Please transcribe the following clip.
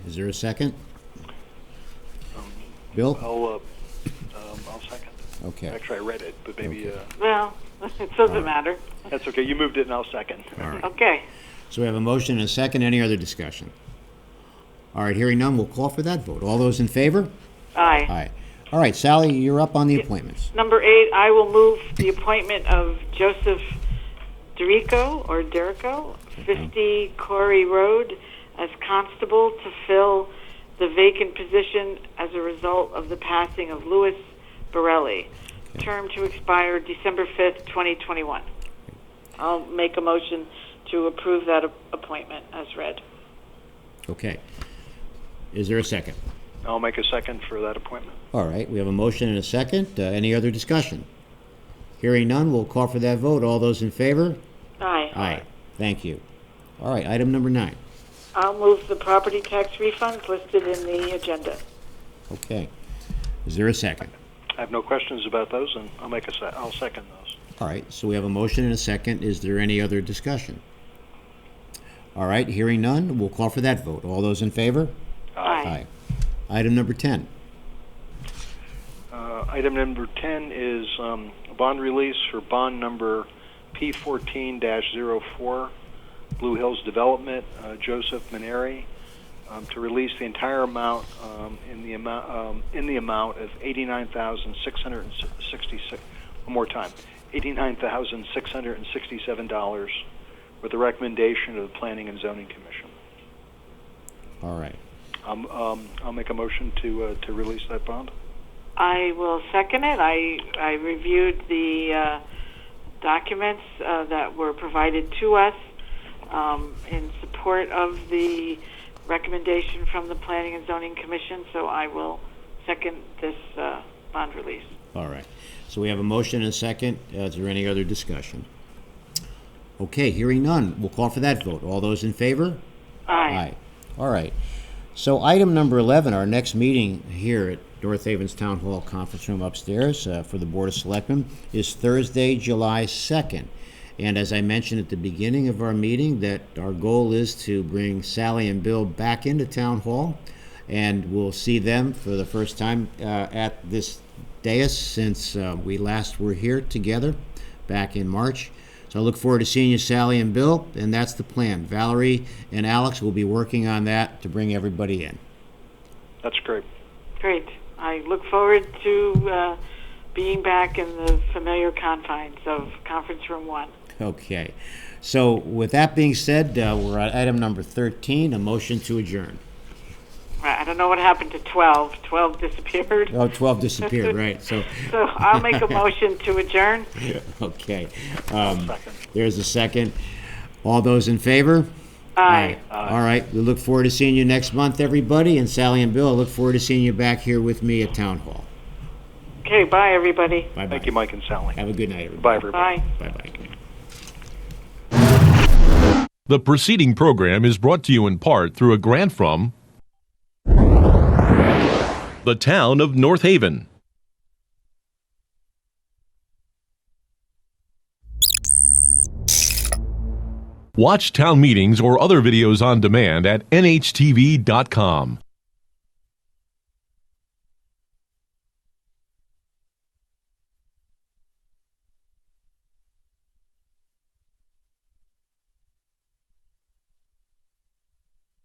Is there a second? Bill? I'll, uh, um, I'll second. Okay, Actually, I read it, but maybe, uh, Well, it doesn't matter. that's okay. You moved it and I'll second. all right. Okay. So we have a motion and a second. Any other discussion? All right, hearing none, we'll call for that vote. All those in favor? Aye. Aye. All right, Sally, you're up on the appointments. Number eight, I will move the appointment of Joseph Derico or Derico, 50 Corey Road, as constable to fill the vacant position as a result of the passing of Louis Borelli. Term to expire December 5th, 2021. I'll make a motion to approve that a- appointment as read. Okay. Is there a second? I'll make a second for that appointment. All right, we have a motion and a second. Uh, Any other discussion? Hearing none, we'll call for that vote. All those in favor? Aye. Aye. Thank you. All right, item number nine. I'll move the property tax refunds listed in the agenda. Okay. Is there a second? I have no questions about those and I'll make a se- I'll second those. All right, so we have a motion and a second. Is there any other discussion? All right, hearing none, we'll call for that vote. All those in favor? Aye. Item number 10. Uh, item number 10 is, um, a bond release for bond number P14-04, Blue Hills Development, uh, Joseph Maneri, um, to release the entire amount, um, in the amount, um, in the amount of 89,666, one more time, $89,667 with the recommendation of the Planning and Zoning Commission. All right. Um, um, I'll make a motion to, uh, to release that bond. I will second it. I, I reviewed the uh, documents uh, that were provided to us um, in support of the recommendation from the Planning and Zoning Commission, so I will second this uh, bond release. All right. So we have a motion and a second. Is there any other discussion? Okay, hearing none, we'll call for that vote. All those in favor? Aye. All right. So item number 11, our next meeting here at North Haven's Town Hall Conference Room upstairs uh, for the Board of Selectmen is Thursday, July 2nd. And as I mentioned at the beginning of our meeting, that our goal is to bring Sally and Bill back into Town Hall, and we'll see them for the first time uh, at this dais since uh, we last were here together back in March. So I look forward to seeing you, Sally and Bill, and that's the plan. Valerie and Alex will be working on that to bring everybody in. That's great. Great. I look forward to uh, being back in the familiar confines of Conference Room 1. Okay. So with that being said, uh, we're at item number 13, a motion to adjourn. Right, I don't know what happened to 12. 12 disappeared. Oh, 12 disappeared, right? So, So I'll make a motion to adjourn. okay. Um, Second. there's a second. All those in favor? Aye. All right. We look forward to seeing you next month, everybody. And Sally and Bill, I look forward to seeing you back here with me at Town Hall. Okay, bye, everybody. Bye bye. Thank you, Mike and Sally. Have a good night, everybody. Bye, everybody. Bye. Bye bye. The preceding program is brought to you in part through a grant from the town of North Haven. Watch town meetings or other videos on demand at nhtv.com.